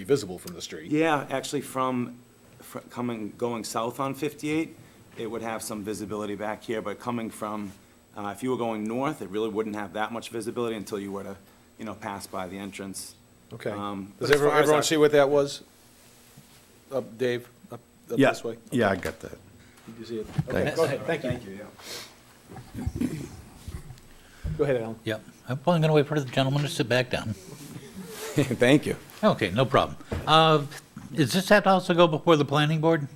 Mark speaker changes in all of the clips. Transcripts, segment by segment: Speaker 1: be visible from the street.
Speaker 2: Yeah, actually from, fr- coming, going south on 58, it would have some visibility back here, but coming from, uh, if you were going north, it really wouldn't have that much visibility until you were to, you know, pass by the entrance.
Speaker 1: Okay.
Speaker 2: Um,
Speaker 1: Does
Speaker 2: but as far
Speaker 1: everyone,
Speaker 2: as
Speaker 1: everyone
Speaker 2: our-
Speaker 1: see what that was? Up, Dave, up, up
Speaker 3: Yeah,
Speaker 1: this way?
Speaker 3: yeah, I got that.
Speaker 1: Did you see it? Okay, go ahead, thank you.
Speaker 2: Thank you, yeah.
Speaker 1: Go ahead, Alan.
Speaker 4: Yep. I'm going to wait for the gentleman to sit back down.
Speaker 1: Thank you.
Speaker 4: Okay, no problem. Uh, Does this have to also go before the planning board?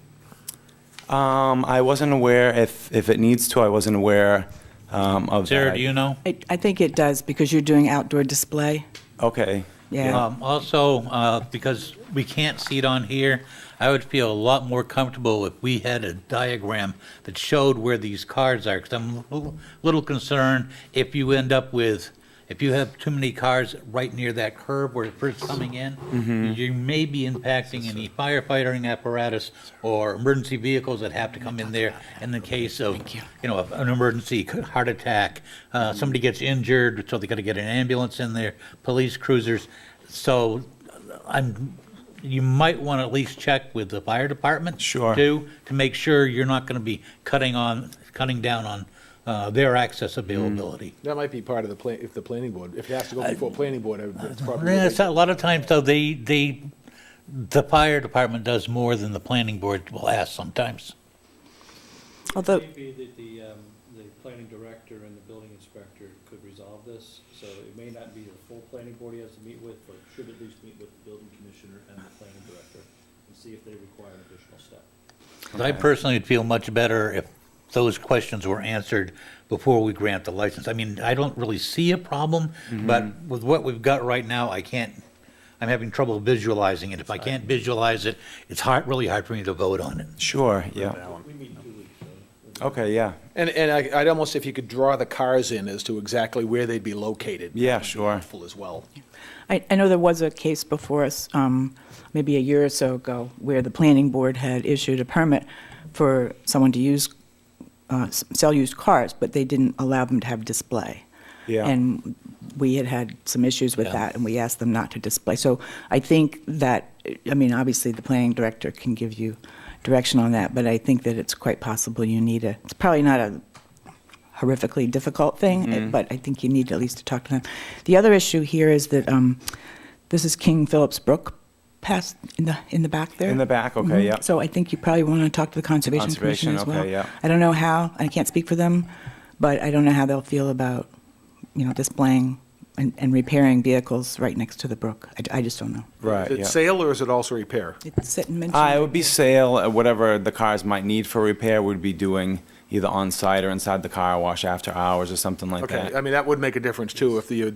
Speaker 2: Um, I wasn't aware if, if it needs to, I wasn't aware um, of that.
Speaker 4: Sarah, do you know?
Speaker 5: I, I think it does, because you're doing outdoor display.
Speaker 2: Okay.
Speaker 5: Yeah.
Speaker 4: Um, Also, uh, because we can't see it on here, I would feel a lot more comfortable if we had a diagram that showed where these cars are, because I'm a little- little concerned if you end up with, if you have too many cars right near that curb where it's first coming in, you may be impacting any firefighting apparatus or emergency vehicles that have to come in there in the case of, you know, an emergency, c- heart attack, uh, somebody gets injured, so they got to get an ambulance in there, police cruisers. So I'm, you might want to at least check with the fire department.
Speaker 2: Sure.
Speaker 4: Too, to make sure you're not going to be cutting on, cutting down on uh, their access availability.
Speaker 1: That might be part of the plan, if the planning board, if it has to go before planning board, I would- it's probably.
Speaker 4: Yeah, it's a lot of times though, they, they, the fire department does more than the planning board will ask sometimes.
Speaker 5: Although,
Speaker 6: It may be that the, um, the planning director and the building inspector could resolve this, so it may not be the full planning board he has to meet with, but should at least meet with the building commissioner and the planning director and see if they require an additional step.
Speaker 4: 'Cause I personally would feel much better if those questions were answered before we grant the license. I mean, I don't really see a problem,
Speaker 2: Mm-hmm.
Speaker 4: but with what we've got right now, I can't, I'm having trouble visualizing it. If I can't visualize it, it's hard, really hard for me to vote on it.
Speaker 2: Sure, yeah.
Speaker 6: We meet in two weeks, so.
Speaker 2: Okay, yeah.
Speaker 1: And, and I- I'd almost, if you could draw the cars in as to exactly where they'd be located.
Speaker 2: Yeah,
Speaker 1: that'd be
Speaker 2: sure.
Speaker 1: Helpful as well.
Speaker 5: I, I know there was a case before us, um, maybe a year or so ago, where the planning board had issued a permit for someone to use, uh, s- sell used cars, but they didn't allow them to have display.
Speaker 2: Yeah.
Speaker 5: And we had had some issues with
Speaker 4: Yeah.
Speaker 5: that, and we asked them not to display. So I think that, I mean, obviously, the planning director can give you direction on that, but I think that it's quite possible you need a, it's probably not a horrifically difficult thing,
Speaker 2: Mm-hmm.
Speaker 5: eh, but I think you need at least to talk to them. The other issue here is that um, this is King Phillips Brook past in the in the back there.
Speaker 2: In the back, okay,
Speaker 5: Mhm.
Speaker 2: yeah.
Speaker 5: So I think you probably want to talk to the conservation,
Speaker 2: Conservation,
Speaker 5: commission as well.
Speaker 2: okay, yeah.
Speaker 5: I don't know how. I can't speak for them, but I don't know how they'll feel about you know displaying and, and repairing vehicles right next to the brook. I, I just don't know.
Speaker 2: Right,
Speaker 1: Is
Speaker 2: yeah.
Speaker 1: it sale or is it also repair?
Speaker 5: It's sit and mention.
Speaker 2: Uh, it would be sale, uh, whatever the cars might need for repair, we'd be doing either on-site or inside the car wash after hours or something like
Speaker 1: Okay,
Speaker 2: that.
Speaker 1: I mean, that would make a difference too, if you're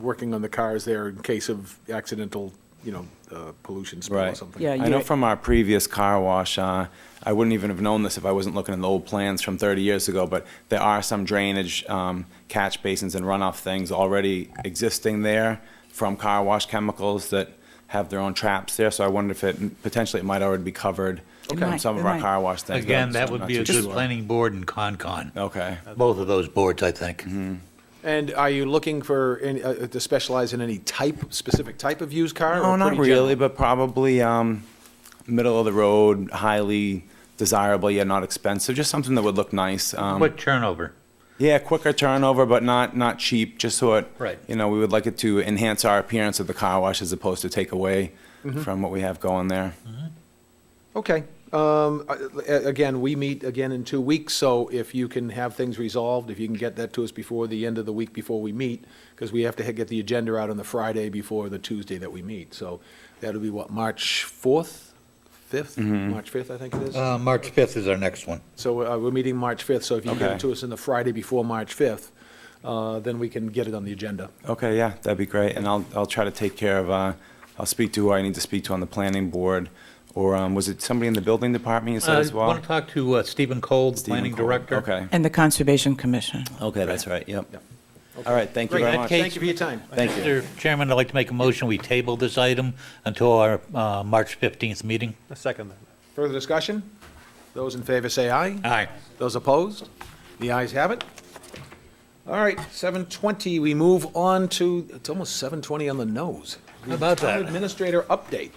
Speaker 1: working on the cars there in case of accidental, you know, uh, pollution spill or
Speaker 2: Right.
Speaker 1: something.
Speaker 5: Yeah,
Speaker 2: I know from our previous car wash, uh, I wouldn't even have known this if I wasn't looking at the old plans from 30 years ago, but there are some drainage um, catch basins and runoff things already existing there from car wash chemicals that have their own traps there, so I wondered if it, potentially it might already be covered
Speaker 5: It
Speaker 2: from
Speaker 5: might,
Speaker 2: some of
Speaker 5: it
Speaker 2: our
Speaker 5: might.
Speaker 2: car wash things. but
Speaker 4: Again,
Speaker 2: I'm
Speaker 4: that
Speaker 2: still
Speaker 4: would
Speaker 2: not
Speaker 4: be a
Speaker 2: too
Speaker 4: good
Speaker 2: sure.
Speaker 4: planning board and Concon,
Speaker 2: Okay.
Speaker 4: both of those boards, I think.
Speaker 2: Mm-hmm.
Speaker 1: And are you looking for, any- uh, to specialize in any type, specific type of used car?
Speaker 2: No,
Speaker 1: or
Speaker 2: not
Speaker 1: pretty general?
Speaker 2: really, but probably um, middle of the road, highly desirable yet not expensive. Just something that would look nice. Um,
Speaker 4: Quick turnover.
Speaker 2: yeah, quicker turnover, but not not cheap. Just so it,
Speaker 4: Right.
Speaker 2: you know, we would like it to enhance our appearance of the car wash as opposed to take away from what we have going there.
Speaker 1: Okay. Um, a- a- Again, we meet again in two weeks, so if you can have things resolved, if you can get that to us before the end of the week before we meet, because we have to get the agenda out on the Friday before the Tuesday that we meet. So that'll be what, March 4th, 5th?
Speaker 2: Mm-hmm.
Speaker 1: March 5th, I think it is.
Speaker 4: Uh, March 5th is our next one.
Speaker 1: So uh, we're meeting March 5th, so if you can get
Speaker 2: Okay.
Speaker 1: it to us on the Friday before March 5th, uh, then we can get it on the agenda.
Speaker 2: Okay, yeah, that'd be great. And I'll I'll try to take care of. Uh, I'll speak to who I need to speak to on the planning board, or um, was it somebody in the building department you said
Speaker 4: I
Speaker 2: as well?
Speaker 4: want to talk to uh, Stephen Cole, the
Speaker 2: Stephen
Speaker 4: planning
Speaker 2: Cole.
Speaker 4: director.
Speaker 2: Okay.
Speaker 5: and the conservation commission.
Speaker 2: Okay, that's right. Yep. All right. Thank you
Speaker 1: Great,
Speaker 2: very
Speaker 4: that
Speaker 2: much.
Speaker 4: case-
Speaker 1: Thank you for your time.
Speaker 2: Thank you.
Speaker 4: Mr. Chairman, I'd like to make a motion, we table this item until our uh, March 15th meeting.
Speaker 6: second then.
Speaker 1: Further discussion? Those in favor say aye.
Speaker 4: Aye.
Speaker 1: Those opposed? The ayes have it. All right, 7:20, we move on to, it's almost 7:20 on the nose.
Speaker 4: How about
Speaker 1: Town
Speaker 4: that?
Speaker 1: Administrator update.